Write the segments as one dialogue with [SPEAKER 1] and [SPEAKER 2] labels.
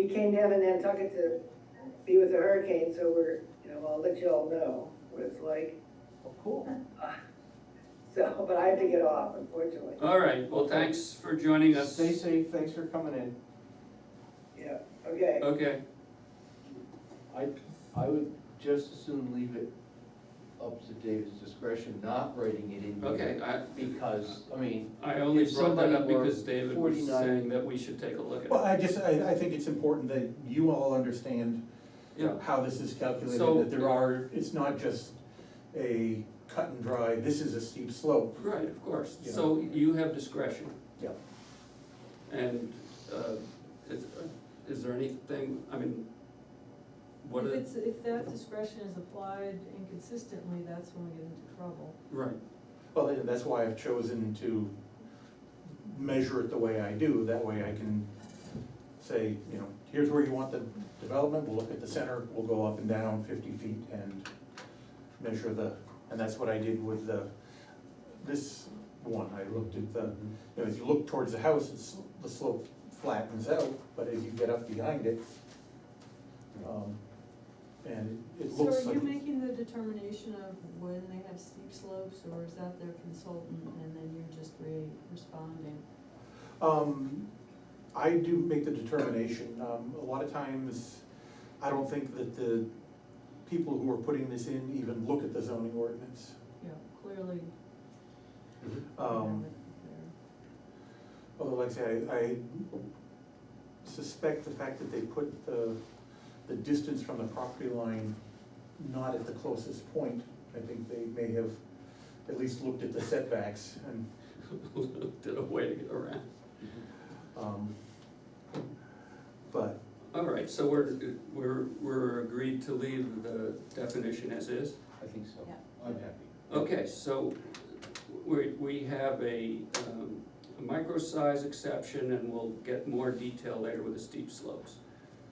[SPEAKER 1] came down in Nantucket to be with the hurricane, so we're, you know, I'll let you all know what it's like.
[SPEAKER 2] Cool.
[SPEAKER 1] So, but I have to get off unfortunately.
[SPEAKER 3] All right, well, thanks for joining us.
[SPEAKER 2] Stay safe, thanks for coming in.
[SPEAKER 1] Yeah, okay.
[SPEAKER 3] Okay,
[SPEAKER 4] I, I would just as soon leave it up to David's discretion, not writing it in here.
[SPEAKER 3] okay, I,
[SPEAKER 4] Because, I mean,
[SPEAKER 3] I only
[SPEAKER 4] If
[SPEAKER 3] brought that
[SPEAKER 4] somebody
[SPEAKER 3] up
[SPEAKER 4] were
[SPEAKER 3] because David was
[SPEAKER 4] 49
[SPEAKER 3] saying that we should take a look at
[SPEAKER 5] Well,
[SPEAKER 3] it.
[SPEAKER 5] I just, I, I think it's important that you all understand
[SPEAKER 3] Yeah,
[SPEAKER 5] how this is calculated,
[SPEAKER 3] So-
[SPEAKER 5] that there are, it's not just a cut and dry, this is a steep slope.
[SPEAKER 3] right, of course, so you have discretion.
[SPEAKER 5] Yeah.
[SPEAKER 3] And, uh, is, is there anything, I mean, what
[SPEAKER 6] If
[SPEAKER 3] is,
[SPEAKER 6] it's, if that discretion is applied inconsistently, that's when we get into trouble.
[SPEAKER 3] right,
[SPEAKER 5] Well, and that's why I've chosen to measure it the way I do, that way I can say, you know, here's where you want the development, we'll look at the center, we'll go up and down fifty feet and measure the, and that's what I did with the, this one, I looked at the, you know, as you look towards the house, it's, the slope flattens out, but as you get up behind it, um, and it
[SPEAKER 6] So
[SPEAKER 5] looks
[SPEAKER 6] are
[SPEAKER 5] like.
[SPEAKER 6] you making the determination of when they have steep slopes, or is that their consultant, and then you're just re- responding?
[SPEAKER 5] Um, I do make the determination, um, a lot of times, I don't think that the people who are putting this in even look at the zoning ordinance.
[SPEAKER 6] Yeah, clearly. we have
[SPEAKER 5] Um,
[SPEAKER 6] it there.
[SPEAKER 5] although like I say, I, I suspect the fact that they put the, the distance from the property line not at the closest point, I think they may have at least looked at the setbacks and,
[SPEAKER 3] did a way to get around.
[SPEAKER 5] um, but,
[SPEAKER 3] All right, so we're, we're, we're agreed to leave the definition as is?
[SPEAKER 4] I think so.
[SPEAKER 6] Yeah.
[SPEAKER 4] I'm happy.
[SPEAKER 3] Okay, so we, we have a, um, a micro-size exception and we'll get more detail later with the steep slopes.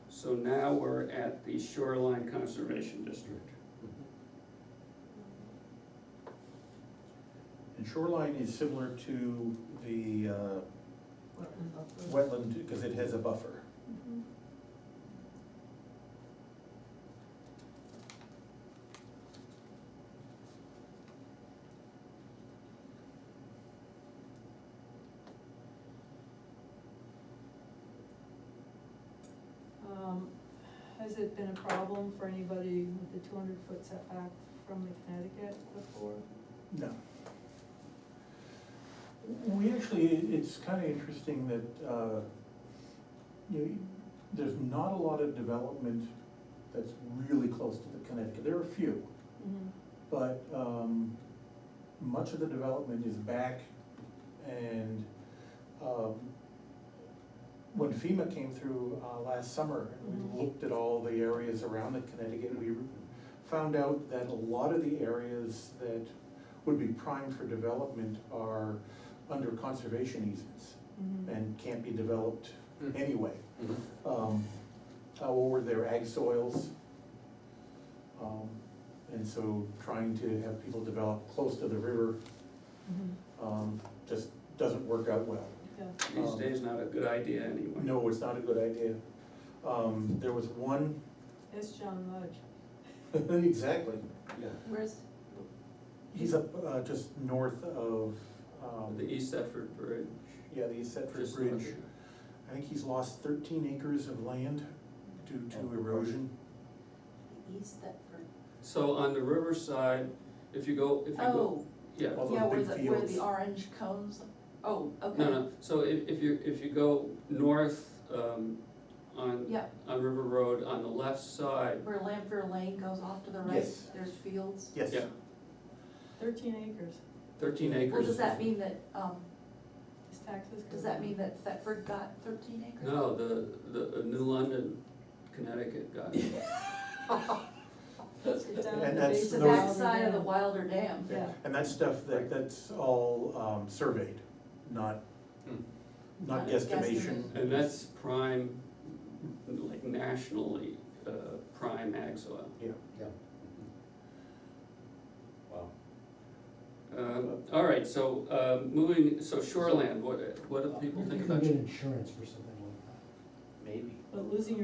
[SPEAKER 3] So now we're at the shoreline conservation district.
[SPEAKER 5] and shoreline is similar to the, uh,
[SPEAKER 6] Wetland buffer.
[SPEAKER 5] wetland, because it has a buffer.
[SPEAKER 6] Mhm. Um, Has it been a problem for anybody with the two hundred foot setback from the Connecticut before?
[SPEAKER 5] No. We actually, it's kind of interesting that, uh, you know, there's not a lot of development that's really close to the Connecticut, there are a few,
[SPEAKER 6] Mm-hmm,
[SPEAKER 5] but, um, much of the development is back and, um, when FEMA came through, uh, last summer, and
[SPEAKER 6] Mhm.
[SPEAKER 5] we looked at all the areas around the Connecticut, we found out that a lot of the areas that would be prime for development are under conservation easements
[SPEAKER 6] Mhm.
[SPEAKER 5] and can't be developed
[SPEAKER 4] Mm.
[SPEAKER 5] anyway.
[SPEAKER 4] Mhm.
[SPEAKER 5] Um, uh, Or their ag soils. Um, And so trying to have people develop close to the river
[SPEAKER 6] Mhm.
[SPEAKER 5] um, just doesn't work out well.
[SPEAKER 6] Yeah.
[SPEAKER 3] These
[SPEAKER 5] Um,
[SPEAKER 3] days not a good idea anyway.
[SPEAKER 5] No, it's not a good idea. Um, There was one,
[SPEAKER 6] It's John Mudge.
[SPEAKER 5] exactly,
[SPEAKER 4] Yeah.
[SPEAKER 6] Where's?
[SPEAKER 5] he's up uh, just north of, um,
[SPEAKER 3] The East Thetford Bridge.
[SPEAKER 5] yeah, the East Setford
[SPEAKER 3] just north
[SPEAKER 5] Bridge.
[SPEAKER 3] of-
[SPEAKER 5] I think he's lost thirteen acres of land due
[SPEAKER 3] Oh,
[SPEAKER 5] to erosion.
[SPEAKER 7] East Thetford.
[SPEAKER 3] So on the riverside, if you go, if you go,
[SPEAKER 7] Oh,
[SPEAKER 3] yeah,
[SPEAKER 5] All
[SPEAKER 7] yeah,
[SPEAKER 5] those
[SPEAKER 7] where
[SPEAKER 5] big
[SPEAKER 7] the,
[SPEAKER 5] fields.
[SPEAKER 7] where the orange cones, oh, okay.
[SPEAKER 3] no, no, so if, if you, if you go north, um, on,
[SPEAKER 7] Yeah,
[SPEAKER 3] on River Road, on the left side,
[SPEAKER 7] where Lamphir Lane goes off to the right,
[SPEAKER 5] Yes.
[SPEAKER 7] there's fields.
[SPEAKER 5] Yes.
[SPEAKER 3] Yeah.
[SPEAKER 6] Thirteen acres.
[SPEAKER 3] thirteen acres.
[SPEAKER 7] Well, does that mean that, um,
[SPEAKER 6] His taxes. go
[SPEAKER 7] does that
[SPEAKER 6] down.
[SPEAKER 7] mean that Thetford got thirteen acres?
[SPEAKER 3] No, the, the uh, New London, Connecticut guy.
[SPEAKER 6] It's down
[SPEAKER 5] And
[SPEAKER 6] at the
[SPEAKER 5] that's
[SPEAKER 6] base
[SPEAKER 7] The
[SPEAKER 6] of
[SPEAKER 5] those-
[SPEAKER 7] backside of the Wilder Dam.
[SPEAKER 6] Yeah.
[SPEAKER 5] And that's stuff that, that's all um, surveyed, not,
[SPEAKER 4] Hmm.
[SPEAKER 5] not
[SPEAKER 7] Not
[SPEAKER 5] guesstimation.
[SPEAKER 7] guesstimate.
[SPEAKER 3] And that's prime, like nationally, uh, prime ag soil.
[SPEAKER 4] Yeah. Wow.
[SPEAKER 3] Um, all right, so, uh, moving, so shoreland. what, what do people think about?
[SPEAKER 8] You can get insurance for something like that.
[SPEAKER 4] Maybe.
[SPEAKER 6] But losing your